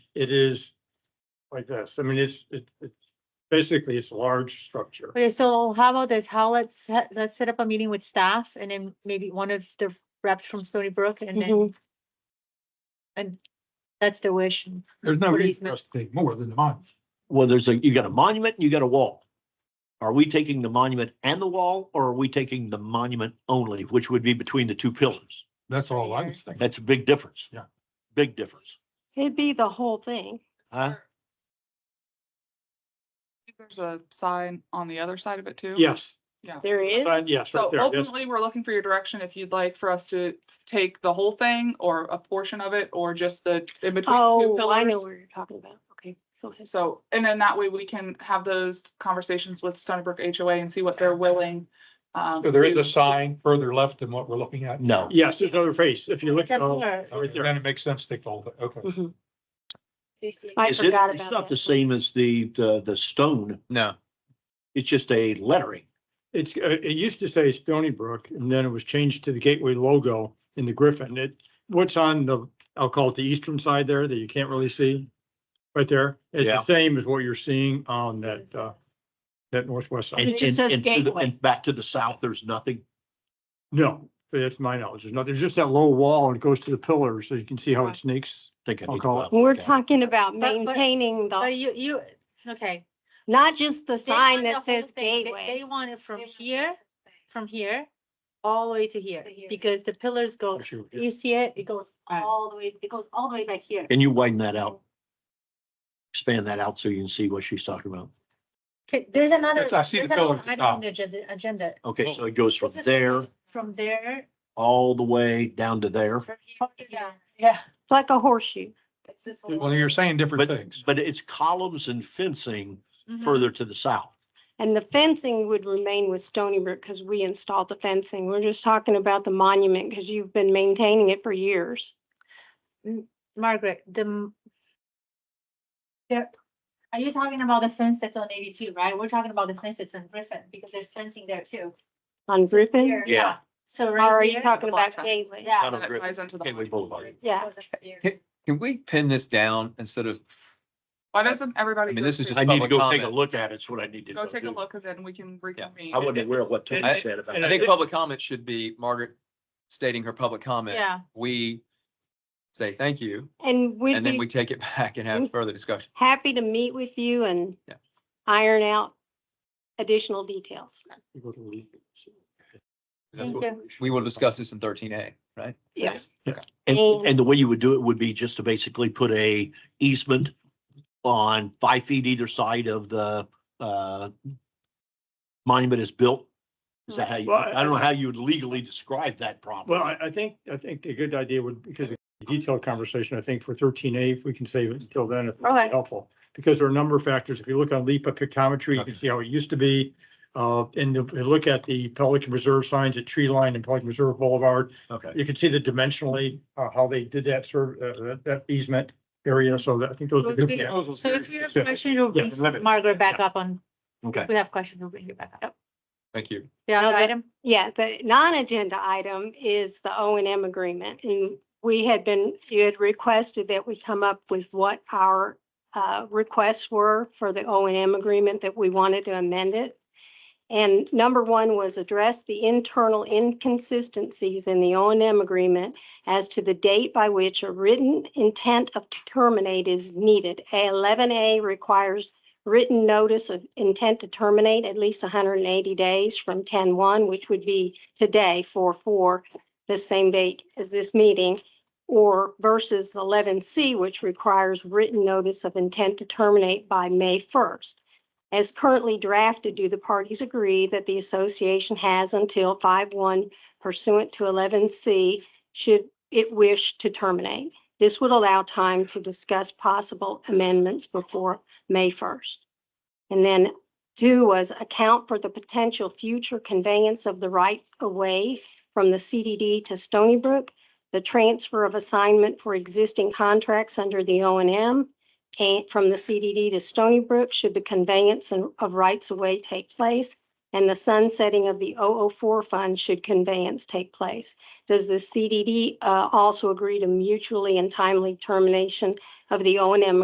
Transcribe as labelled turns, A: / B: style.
A: it is like this. I mean, it's, it, it, basically, it's a large structure.
B: Okay, so how about this? How let's, ha- let's set up a meeting with staff and then maybe one of the reps from Stony Brook and
C: Mm-hmm.
B: then. And that's the wish.
D: There's no
B: What
D: reason
B: easement?
D: for us to take more than the month.
E: Well, there's a, you got a monument, and you got a wall. Are we taking the monument and the wall, or are we taking the monument only, which would be between the two pillars?
D: That's all I was thinking.
E: That's a big difference.
D: Yeah.
E: Big difference.
C: It'd be the whole thing.
E: Huh?
F: think There's a sign on the other side of it too.
A: Yes,
C: There is.
A: uh, yes, right
F: So
A: there. Yes.
F: ultimately, we're looking for your direction if you'd like for us to take the whole thing or a portion of it or just the in between two
C: Oh, I know
F: pillars.
C: what you're talking about. Okay. go ahead.
F: So, and then that way we can have those conversations with Stony Brook HOA and see what they're willing. um,
D: So there is
F: to-
D: a sign further left than what we're looking at.
E: No.
A: Yes, there's another face. If you oh, look. at all-
B: That's
A: right
D: Okay,
A: there.
D: Then it makes sense to take the whole, thing. okay.
B: Mm-hmm.
C: Mhm. I
E: Is it-
C: forgot
E: It's
C: about
E: not the
C: that.
E: same as the, the, the stone.
G: No.
E: It's just a lettering.
A: It's, uh, it used to say Stony Brook, and then it was changed to the Gateway logo in the Griffin. It, what's on the, I'll call it the eastern side there that you can't really see. Right there. It's
E: Yeah.
A: the same as what you're seeing on that, uh, that northwest
E: And,
A: side.
C: It just
E: and,
C: says
E: and to the-
C: gateway.
E: and back to the south, there's nothing.
A: No, that's my knowledge. There's not, there's just that low wall and it goes to the pillars, so you can see how it sneaks.
E: Think I
A: I'll
E: need to
A: call
E: go
A: it.
E: out and
C: We're
E: look at it.
C: talking about
B: But- but-
C: maintaining
B: But
C: the,
B: Oh, you, you, okay.
C: not just the
B: They
C: sign
B: want the
C: that
B: whole
C: says
B: thing. They- They
C: gateway.
B: want it from here, from here, all the way to here,
C: To here.
B: because the pillars go,
D: Wish you were here.
B: you see it, it goes
C: Right.
B: all the way, it goes all the way back here.
E: Can you widen that out? Expand that out so you can see what she's talking about.
B: Okay, there's another.
D: That's- I see the
B: there's another
D: pillar at the
B: item on
D: top.
B: the Agenda, agenda.
E: Okay, so it goes from
B: This is
E: there
B: From there.
E: all the way down to there.
B: from here, Yeah.
C: It's like a horseshoe.
B: It's this whole-
D: Well, you're saying different
E: But,
D: things.
E: but it's columns and fencing
C: Mm-hmm.
B: Mhm.
E: further to the south.
C: And the fencing would remain with Stony Brook because we installed the fencing. We're just talking about the monument because you've been maintaining it for years.
B: Margaret, the. m- There, are you talking about the fence that's on eighty-two, right? We're talking about the fence that's on Griffin, because there's fencing there too.
C: On Griffin,
B: Here, yeah. So
C: or
B: right.
C: are you
B: here-
C: talking about
F: Block.
C: gateway?
B: Yeah.
E: Not on
F: that
E: Griffin,
F: ties into the
E: Gateway
F: monument.
E: Boulevard.
C: Yeah.
G: Can we pin this down instead of,
F: Why doesn't everybody?
G: I mean,
F: go
G: this is
F: through-
E: I need to
G: Public
E: go take a
G: comment.
E: look at it. It's what I need to
F: Go
E: go
F: take a
E: do.
F: look and then we can reconvene.
E: I wasn't aware of what Tony
G: I-
E: said about
A: and
G: I
E: that.
G: think public comment should be Margaret stating her public comment.
B: Yeah,
G: We say thank you,
C: And we'd
G: and then we
C: be Mm.
G: take it back and have further discussion.
C: happy to meet with you and
G: Yeah.
C: iron out additional details.
G: That's
B: thank
G: what-
B: you.
G: We will discuss this in thirteen A, right?
C: Yes.
E: And,
C: And-
E: and the way you would do it would be just to basically put a easement on five feet either side of the, uh, monument is built. Is that how you,
A: Right.
E: I don't know how you would legally describe that problem.
A: Well, I, I think, I think the good idea would, because a detailed conversation, I think for thirteen A, if we can save it until then, it'd be
B: Okay.
A: helpful. Because there are a number of factors. If you look on LIPA pictometry, you
G: Okay.
A: can see how it used to be. Uh, and if you look at the Pelican Reserve signs at Tree Line and Pelican Reserve Boulevard,
E: Okay.
A: you can see the dimensionally, uh, how they did that serve, uh, that- that easement area. So that, I think those are good.
B: Okay.
A: proposals.
B: So if you have
A: Yeah.
B: questions, you'll
A: Yeah,
B: bring
A: limit.
B: Margaret back up on,
E: Okay.
B: if we have questions, we'll bring you back up.
G: Thank you.
B: The other
C: No, that-
B: item,
C: Yeah, the non-agenda item is the O and M agreement. And we had been, you had requested that we come up with what our uh, requests were for the O and M agreement that we wanted to amend it. And number one was address the internal inconsistencies in the O and M agreement as to the date by which a written intent of to terminate is needed. Eleven A requires written notice of intent to terminate at least hundred and eighty days from 10-1, which would be today, four, four, the same date as this meeting, or versus eleven C, which requires written notice of intent to terminate by May first. As currently drafted, do the parties agree that the association has until five-one pursuant to eleven C should it wish to terminate? This would allow time to discuss possible amendments before May first. And then two was account for the potential future conveyance of the right of way from the CDD to Stony Brook, the transfer of assignment for existing contracts under the O and M and from the CDD to Stony Brook should the conveyance and- of rights of way take place and the sunsetting of the 004 fund should conveyance take place. Does the CDD uh, also agree to mutually and timely termination of the O and M